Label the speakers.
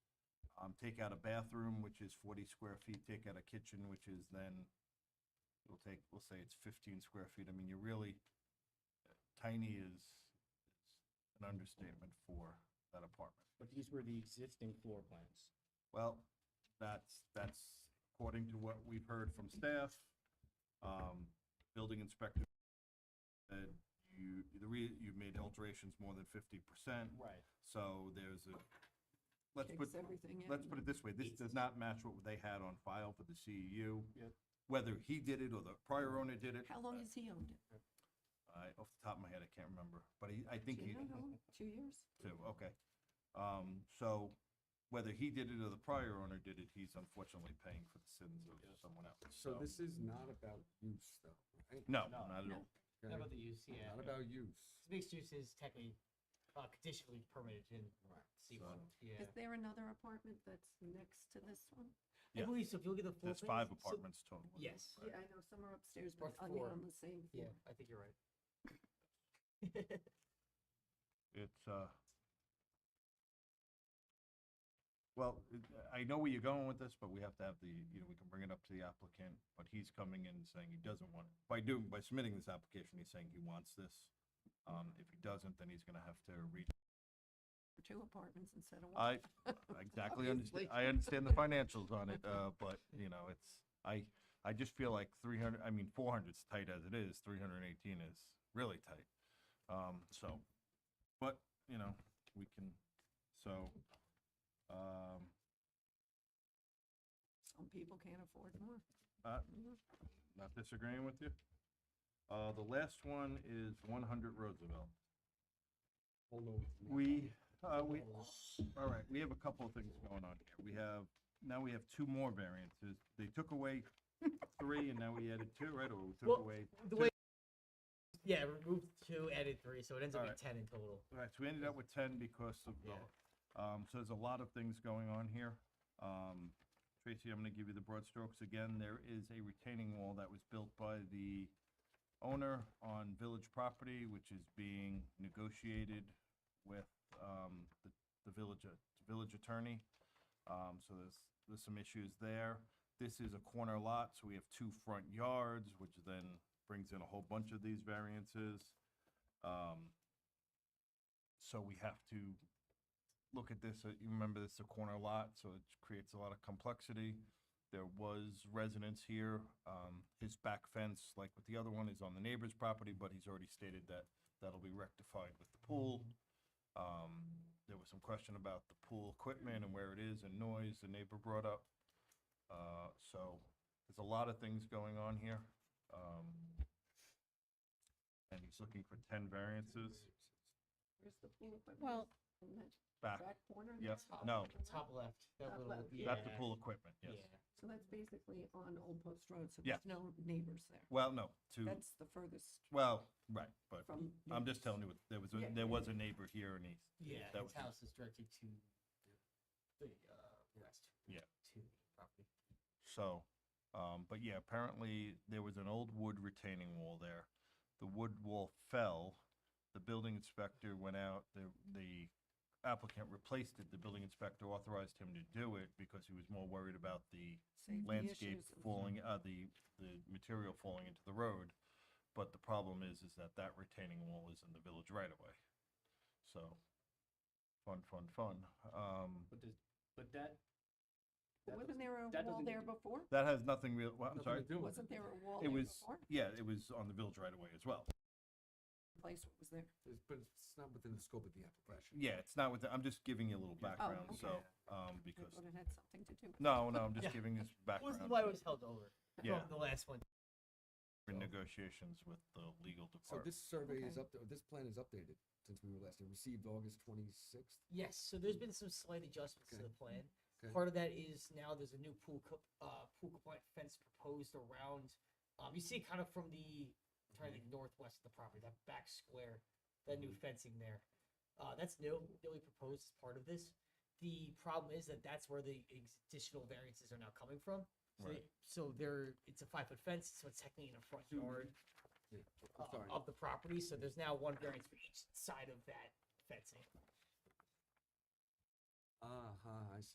Speaker 1: um, take out a bathroom, which is forty square feet, take out a kitchen, which is then, we'll take, we'll say it's fifteen square feet, I mean, you're really, tiny is, is an understatement for that apartment.
Speaker 2: But these were the existing floor plans.
Speaker 1: Well, that's, that's according to what we've heard from staff. Um, building inspector said you, the re, you've made alterations more than fifty percent,
Speaker 2: Right.
Speaker 1: so there's a, let's put,
Speaker 3: Kicks everything in.
Speaker 1: let's put it this way, this does not match what they had on file for the CEU.
Speaker 2: Yep.
Speaker 1: Whether he did it or the prior owner did it,
Speaker 3: How long has he owned it?
Speaker 1: I, off the top of my head, I can't remember, but he, I think
Speaker 3: Do
Speaker 1: he.
Speaker 3: you know how long? Two years?
Speaker 1: Two, okay. Um, so whether he did it or the prior owner did it, he's unfortunately paying for the sins of someone else.
Speaker 4: So this is not about use though, right?
Speaker 1: No,
Speaker 2: No.
Speaker 1: not at all.
Speaker 4: Okay?
Speaker 5: about the use, yeah.
Speaker 4: Not about use.
Speaker 5: Mixed use is technically uh, conditionally permitted in C one,
Speaker 1: um,
Speaker 5: yeah.
Speaker 3: Is there another apartment that's next to this one?
Speaker 1: yeah.
Speaker 5: I believe so, if you look at the floor.
Speaker 1: There's five
Speaker 5: plans, so-
Speaker 1: apartments total. isn't there?
Speaker 5: Yes.
Speaker 3: Yeah, I know some are upstairs,
Speaker 5: Or
Speaker 3: but on the,
Speaker 5: four.
Speaker 3: on the same
Speaker 5: Yeah,
Speaker 3: floor.
Speaker 5: I think you're right.
Speaker 1: It's, uh, well, it- I know where you're going with this, but we have to have the, you know, we can bring it up to the applicant, but he's coming in and saying he doesn't want, by doing, by submitting this application, he's saying he wants this. Um, if he doesn't, then he's gonna have to reach
Speaker 3: For Two apartments instead of one.
Speaker 1: I exactly understand,
Speaker 3: Obviously.
Speaker 1: I understand the financials on it, uh, but, you know, it's, I, I just feel like three hundred, I mean, four hundred's tight as it is, three hundred and eighteen is really tight. Um, so, but, you know, we can, so, um,
Speaker 3: Some people can't afford more.
Speaker 1: uh, not disagreeing with you. Uh, the last one is one hundred Roosevelt.
Speaker 4: Hold on.
Speaker 1: We, uh, we, all right, we have a couple of things going on here. We have, now we have two more variances. They took away three and now we added two, right? Or we took
Speaker 5: Well,
Speaker 1: away,
Speaker 5: The way, yeah, remove two, added three, so it ends up being
Speaker 1: Alright.
Speaker 5: ten in total.
Speaker 1: all right, so we ended up with ten because of
Speaker 5: Yeah.
Speaker 1: the, um, so there's a lot of things going on here. Um, Tracy, I'm gonna give you the broad strokes again. There is a retaining wall that was built by the owner on village property, which is being negotiated with, um, the, the village, a- village attorney. Um, so there's, there's some issues there. This is a corner lot, so we have two front yards, which then brings in a whole bunch of these variances. Um, so we have to look at this, uh, you remember this is a corner lot, so it creates a lot of complexity. There was residence here, um, his back fence, like with the other one, is on the neighbor's property, but he's already stated that that'll be rectified with the pool. Um, there was some question about the pool equipment and where it is and noise the neighbor brought up. Uh, so there's a lot of things going on here. Um, and he's looking for ten variances
Speaker 3: Where's the pool equipment?
Speaker 5: Well-
Speaker 3: In that
Speaker 1: back.
Speaker 3: back corner?
Speaker 1: yeah,
Speaker 3: That's top
Speaker 1: Ah. no.
Speaker 3: corner?
Speaker 5: Top left, that
Speaker 3: Top
Speaker 5: little,
Speaker 3: left.
Speaker 5: yeah.
Speaker 1: That's the pool equipment, yes.
Speaker 5: yeah.
Speaker 3: So that's basically on Old Post Road, so
Speaker 1: Yeah.
Speaker 3: there's no neighbors there.
Speaker 1: Well, no, to,
Speaker 3: That's the furthest
Speaker 1: well, right, but
Speaker 3: from.
Speaker 1: I'm just telling you, what- there was,
Speaker 3: Yeah,
Speaker 1: a
Speaker 3: yeah,
Speaker 1: there was a neighbor here and he,
Speaker 5: Yeah,
Speaker 1: That
Speaker 5: his
Speaker 1: was-
Speaker 5: house is directed to the, uh, west.
Speaker 1: Yeah.
Speaker 5: To the property.
Speaker 1: so, um, but yeah, apparently there was an old wood retaining wall there. The wood wall fell, the building inspector went out, the, the applicant replaced it, the building inspector authorized him to do it because he was more worried about the
Speaker 3: safety
Speaker 1: landscape
Speaker 3: issues and-
Speaker 1: falling, uh, the, the material falling into the road. But the problem is, is that that retaining wall is in the village right away. So, fun, fun, fun. Um,
Speaker 2: But does, but that.
Speaker 3: But
Speaker 2: that
Speaker 3: Wasn't
Speaker 2: doesn't-
Speaker 3: there a
Speaker 2: that
Speaker 3: wall
Speaker 2: doesn't-
Speaker 3: there before?
Speaker 1: that has nothing real, well, I'm
Speaker 4: Nothing
Speaker 1: sorry.
Speaker 4: to do with
Speaker 3: Wasn't there a wall
Speaker 1: It
Speaker 3: there
Speaker 1: was,
Speaker 3: before?
Speaker 1: yeah, it was on the village right away as well.
Speaker 3: Place was there.
Speaker 4: It's- But it's not within the scope of the application.
Speaker 1: Yeah, it's not with, the- I'm just giving you a little background,
Speaker 3: okay.
Speaker 1: so, um,
Speaker 3: I
Speaker 1: because,
Speaker 3: thought it had something to do. with-
Speaker 1: no, no, I'm just
Speaker 5: Yeah.
Speaker 1: giving this
Speaker 5: Was
Speaker 1: background.
Speaker 5: why it was held over
Speaker 1: Yeah,
Speaker 5: from the last one.
Speaker 1: in negotiations with the legal
Speaker 4: So
Speaker 1: department.
Speaker 4: this survey is
Speaker 3: Okay.
Speaker 4: up, this plan is updated since we were last, it received August twenty-sixth.
Speaker 5: Yes, so there's been some slight adjustments to
Speaker 4: Hmm. Okay.
Speaker 5: the plan.
Speaker 4: Okay.
Speaker 5: Part of that is now there's a new pool, co- uh, pool compliant fence proposed around, um, you see it kind of from the, I'm trying to
Speaker 4: Mm-hmm.
Speaker 5: think northwest of the property, that back square, that new fencing there. Uh, that's new, newly proposed as part of this. The problem is that that's where the ex- additional variances are now coming from. So,
Speaker 1: Right.
Speaker 5: they- so there, it's a five foot fence, so it's technically in a front yard
Speaker 4: I'm
Speaker 5: uh,
Speaker 4: sorry.
Speaker 5: of the property, so there's now one variance for each side of that fencing.
Speaker 4: Ah, I see.